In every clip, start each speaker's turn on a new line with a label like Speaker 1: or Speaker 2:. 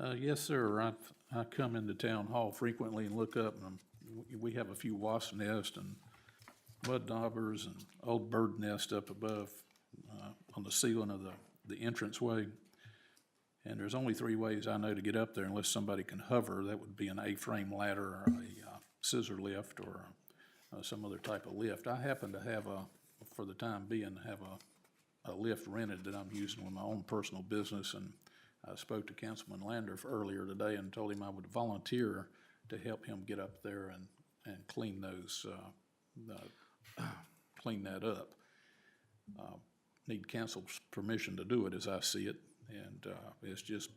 Speaker 1: Uh, yes, sir. I, I come into town hall frequently and look up and I'm- we- we have a few wasp nests and mud daubers and old bird nest up above, uh, on the ceiling of the, the entranceway. And there's only three ways I know to get up there unless somebody can hover. That would be an A-frame ladder or a uh, scissor lift or uh, some other type of lift. I happen to have a, for the time being, have a, a lift rented that I'm using with my own personal business. And I spoke to Councilman Landorf earlier today and told him I would volunteer to help him get up there and, and clean those, uh, uh, clean that up. Uh, Need council's permission to do it, as I see it, and, uh, it's just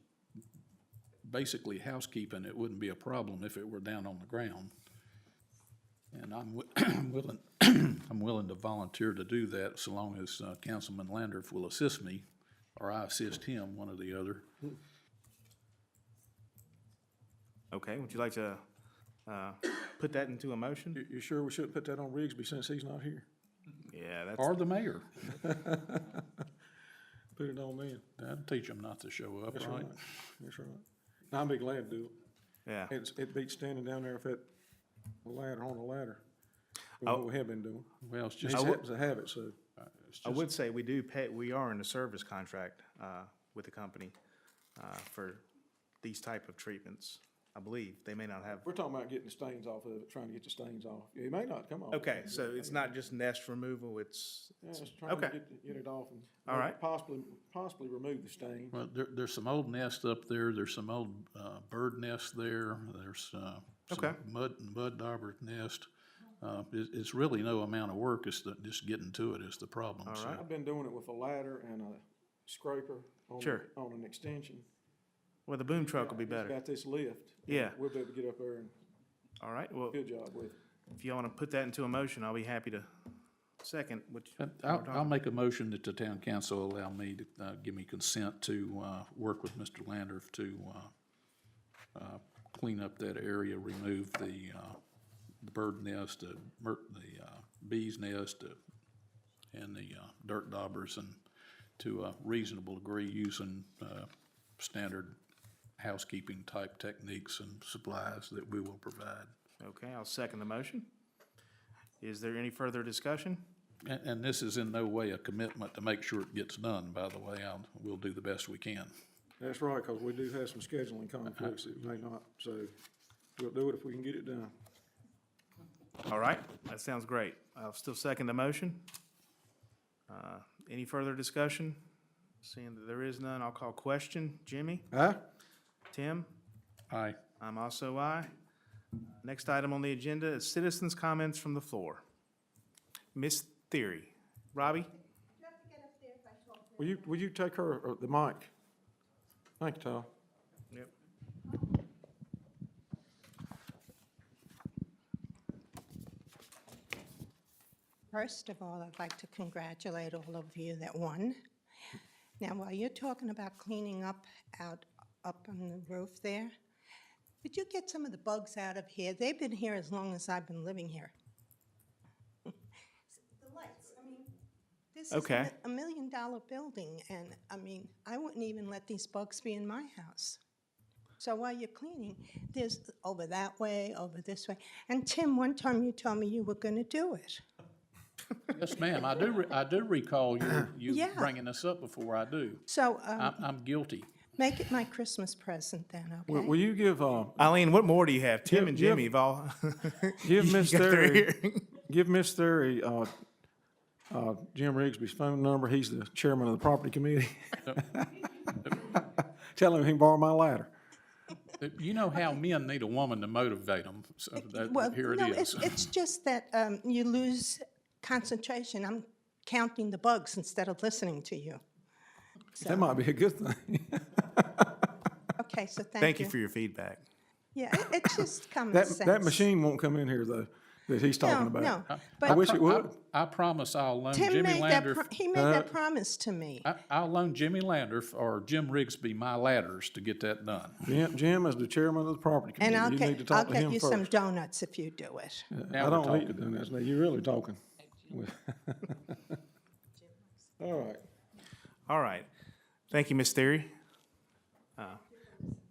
Speaker 1: basically housekeeping. It wouldn't be a problem if it were down on the ground. And I'm wi- willing, I'm willing to volunteer to do that so long as uh, Councilman Landorf will assist me or I assist him, one or the other.
Speaker 2: Okay, would you like to, uh, put that into a motion?
Speaker 3: You, you sure we shouldn't put that on Rigsby since he's not here?
Speaker 2: Yeah, that's,
Speaker 1: Or the mayor.
Speaker 3: Put it on then.
Speaker 1: That'd teach him not to show up,
Speaker 3: That's
Speaker 1: right?
Speaker 3: right. That's right. And I'd be glad to do
Speaker 2: yeah.
Speaker 3: it. It's, it beats standing down there with that ladder, on a ladder. with
Speaker 2: Oh.
Speaker 3: What we have been doing.
Speaker 1: Well, it's
Speaker 3: He
Speaker 1: just, uh,
Speaker 3: happens to have it, so.
Speaker 1: it's
Speaker 2: I
Speaker 1: just,
Speaker 2: would say we do pay, we are in a service contract, uh, with the company, uh, for these type of treatments, I believe. They may not have,
Speaker 3: We're talking about getting the stains off of it, trying to get the stains off. It may not come off.
Speaker 2: okay, so it's not just nest removal, it's,
Speaker 3: Yeah, just trying to
Speaker 2: Okay.
Speaker 3: get, get it off and.
Speaker 2: All right.
Speaker 3: Possibly, possibly remove the stain.
Speaker 1: well, there, there's some old nests up there, there's some old, uh, bird nests there, there's, uh, some
Speaker 2: Okay.
Speaker 1: mud, mud dauber nest. Uh, it, it's really no amount of work, it's the, just getting to it is the problem, so.
Speaker 3: I've been doing it with a ladder and a scraper on,
Speaker 2: Sure.
Speaker 3: on an extension.
Speaker 2: well, the boom truck will be
Speaker 3: He's
Speaker 2: better.
Speaker 3: Got this lift.
Speaker 2: Yeah.
Speaker 3: We'll be able to get up there and
Speaker 2: All right, well,
Speaker 3: good job with it.
Speaker 2: if you wanna put that into a motion, I'll be happy to second, which,
Speaker 1: And I'll, I'll make a motion that the town council allow me to, uh, give me consent to, uh, work with Mr. Landorf to, uh, uh, clean up that area, remove the, uh, the bird nest, the mer, the, uh, bees nest, uh, and the, uh, dirt daubers and to a reasonable degree using, uh, standard housekeeping type techniques and supplies that we will provide.
Speaker 2: okay, I'll second the motion. Is there any further discussion?
Speaker 1: And, and this is in no way a commitment to make sure it gets done, by the way. I'll, we'll do the best we can.
Speaker 3: That's right, because we do have some scheduling conflicts that may not, so we'll do it if we can get it done.
Speaker 2: All right, that sounds great. I'll still second the motion. Uh, Any further discussion? Seeing that there is none, I'll call question. Jimmy?
Speaker 3: Huh?
Speaker 2: Tim?
Speaker 1: Aye.
Speaker 2: I'm also aye. Next item on the agenda is citizens' comments from the floor. Miss Theory. Robbie?
Speaker 3: Will you, will you take her, uh, the mic? Thank you, Todd.
Speaker 2: Yep.
Speaker 4: First of all, I'd like to congratulate all of you that won. Now, while you're talking about cleaning up out, up on the roof there, could you get some of the bugs out of here? They've been here as long as I've been living here. The lights, I mean, this is
Speaker 2: Okay.
Speaker 4: a a million-dollar building, and, I mean, I wouldn't even let these bugs be in my house. So while you're cleaning, there's over that way, over this way. And Tim, one time you told me you were gonna do it.
Speaker 1: Yes, ma'am. I do, re- I do recall you, you
Speaker 4: Yeah.
Speaker 1: bringing this up before I do.
Speaker 4: So, um,
Speaker 1: I'm, I'm guilty.
Speaker 4: Make it my Christmas present then,
Speaker 3: Will,
Speaker 4: okay?
Speaker 3: will you give, uh,
Speaker 2: Eileen, what more do you have? Tim
Speaker 3: Yep,
Speaker 2: and
Speaker 3: yep.
Speaker 2: Jimmy have all.
Speaker 3: give Miss
Speaker 2: You got three
Speaker 3: Theory,
Speaker 2: here.
Speaker 3: give Miss Theory, uh, uh, Jim Rigsby's phone number. He's the chairman of the property committee. Tell him he can borrow my ladder.
Speaker 1: You know how men need a woman to motivate them, so
Speaker 4: Well,
Speaker 1: that, uh, here it
Speaker 4: no, it's-
Speaker 1: is.
Speaker 4: It's just that um, you lose concentration. I'm counting the bugs instead of listening to you.
Speaker 3: That might be a good thing.
Speaker 4: Okay, so
Speaker 2: Thank you for your feedback.
Speaker 4: Yeah, it- it's just common
Speaker 3: That,
Speaker 4: sense.
Speaker 3: that machine won't come in here though, that he's talking
Speaker 4: No,
Speaker 3: about.
Speaker 4: no.
Speaker 3: I
Speaker 4: But
Speaker 3: wish it would.
Speaker 1: I promise I'll loan
Speaker 4: Tim
Speaker 1: Jimmy
Speaker 4: made that,
Speaker 1: Lander,
Speaker 4: pro- he made
Speaker 3: Uh,
Speaker 4: that promise to me.
Speaker 1: I, I'll loan Jimmy Lander or Jim Rigsby my ladders to get that done.
Speaker 3: Jim, Jim is the chairman of the property
Speaker 4: And I'll
Speaker 3: committee. You need to
Speaker 4: get, I'll
Speaker 3: talk to
Speaker 4: get
Speaker 3: him
Speaker 4: you some
Speaker 3: first.
Speaker 4: donuts if you do it.
Speaker 1: Now
Speaker 3: I
Speaker 1: we're
Speaker 3: don't need
Speaker 1: talking.
Speaker 3: to do this. Now, you're really talking. All right.
Speaker 2: All right. Thank you, Miss Theory.